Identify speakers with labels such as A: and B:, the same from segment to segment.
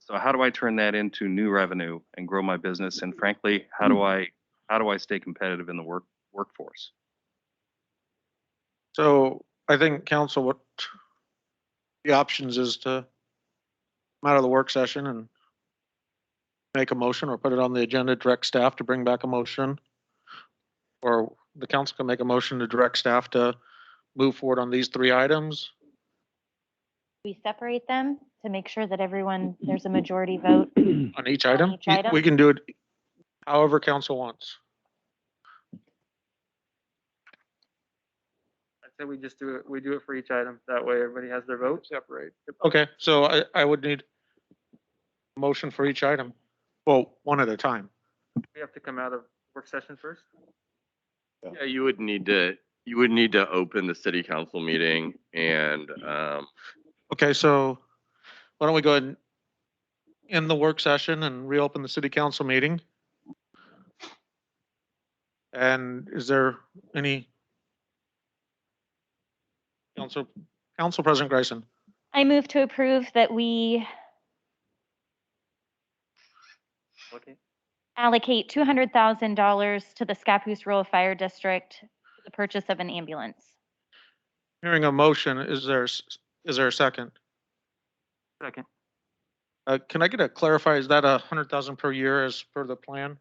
A: So how do I turn that into new revenue and grow my business? And frankly, how do
B: Mm-hmm.
A: I, how do I stay competitive in the work, workforce?
C: So I think council, what the options is to come out of the work session and make a motion or put it on the agenda, direct staff to bring back a motion. Or the council can make a motion to direct staff to move forward on these three items.
D: We separate them to make sure that everyone,
C: Mm-hmm.
D: there's a majority vote.
C: On each item?
D: each item?
C: We can do it however council wants.
E: I said we just do it, we do it for each item. That way everybody has their vote.
C: Separate. Okay, so I, I would need a motion for each item. Well, one at a time.
E: We have to come out of work session first.
B: Yeah, you would need to, you would need to open the city council meeting and,
A: Mm-hmm.
B: um,
C: Okay, so why don't we go ahead and end the work session and reopen the city council meeting? And is there any? Council, Council President Grayson,
D: I move to approve that we
E: Okay.
D: allocate two hundred thousand dollars to the Scappoose Rural Fire District, for the purchase of an ambulance.
C: hearing a motion, is there, s- is there a second?
E: Second.
C: Uh, can I get a clarify, is that a hundred thousand per year as per the plan?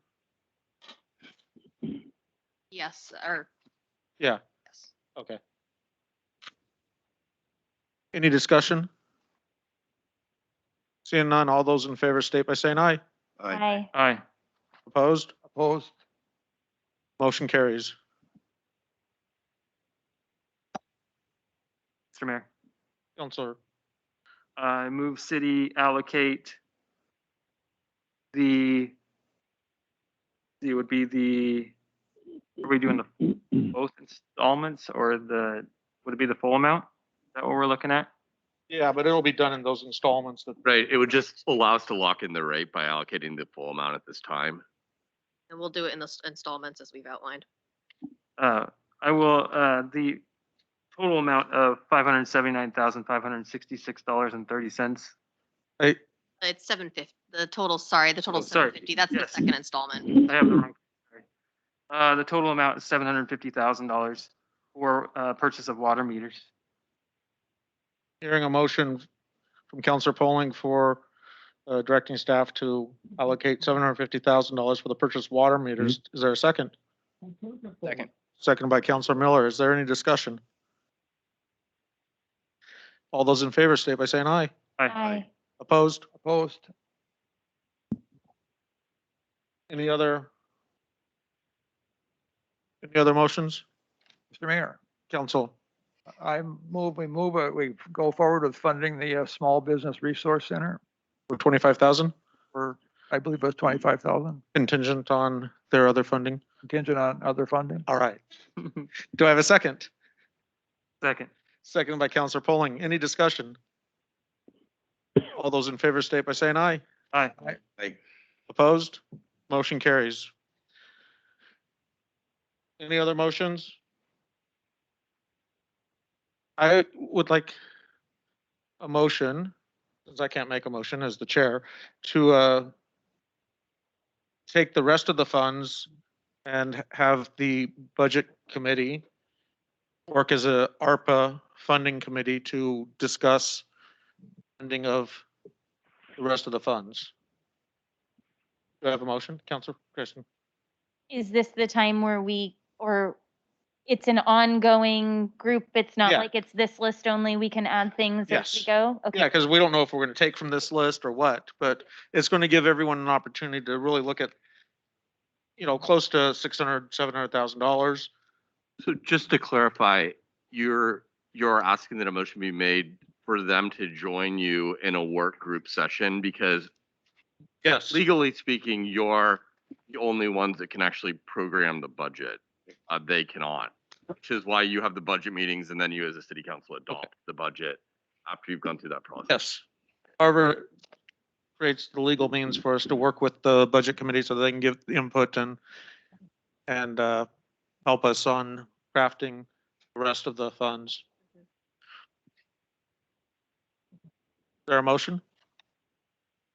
F: Yes, or.
C: Yeah.
F: Yes.
C: Okay. Any discussion? Seeing none, all those in favor state by saying aye.
D: Aye.
E: Aye.
C: Opposed? Opposed. Motion carries.
E: Mr. Mayor,
C: Counselor,
E: I move city allocate the, it would be the, are we doing the both installments or the, would it be the full amount? Is that what we're looking at?
C: yeah, but it'll be done in those installments that,
B: right, it would just allow us to lock in the rate by allocating the full amount at this time.
F: And we'll do it in the s- installments as we've outlined.
E: Uh, I will, uh, the total amount of five hundred seventy-nine thousand, five hundred sixty-six dollars and thirty cents.
C: I,
F: It's seven fifty, the total, sorry, the total
E: Oh, sorry.
F: seven fifty, that's the
E: Yes.
F: second installment.
E: I have the wrong. sorry. Uh, the total amount is seven hundred fifty thousand dollars for, uh, purchase of water meters.
C: hearing a motion from Counselor Polling for uh, directing staff to allocate seven hundred fifty thousand dollars for the purchase of water meters. Is there a second?
A: Second.
C: Second by Counselor Miller. Is there any discussion? All those in favor state by saying aye.
D: Aye.
C: Opposed? Opposed. Any other? Any other motions?
G: Mr. Mayor,
C: Council,
G: I move, we move, uh, we go forward with funding the uh, Small Business Resource Center
C: for twenty-five thousand
G: for, I believe it was 25,000
C: contingent on their other funding.
G: contingent on other funding.
C: All right. Do I have a second?
E: Second.
C: Second by Counselor Polling. Any discussion? All those in favor state by saying aye.
E: Aye.
G: Aye.
B: Aye.
C: Opposed? Motion carries. Any other motions? I would like a motion, since I can't make a motion as the chair, to uh, take the rest of the funds and have the budget committee work as a ARPA funding committee to discuss funding of the rest of the funds. Do I have a motion, Counselor Christian?
D: Is this the time where we, or it's an ongoing group? It's not
C: Yeah.
D: like it's this list only, we can add things as we
C: Yes.
D: go?
C: Yeah,
D: Okay,
C: because we don't know if we're going to take from this list or what, but it's going to give everyone an opportunity to really look at, you know, close to six hundred, seven hundred thousand dollars.
B: So just to clarify, you're, you're asking that a motion be made for them to join you in a work group session because
C: Yes.
B: legally speaking, you're the only ones that can actually program the budget. Uh, they cannot, which is why you have the budget meetings and then you as a city council adopt the budget after you've gone through that process.
C: Yes. However, creates the legal means for us to work with the budget committee so they can give the input and, and uh, help us on crafting the rest of the funds. Is There a motion?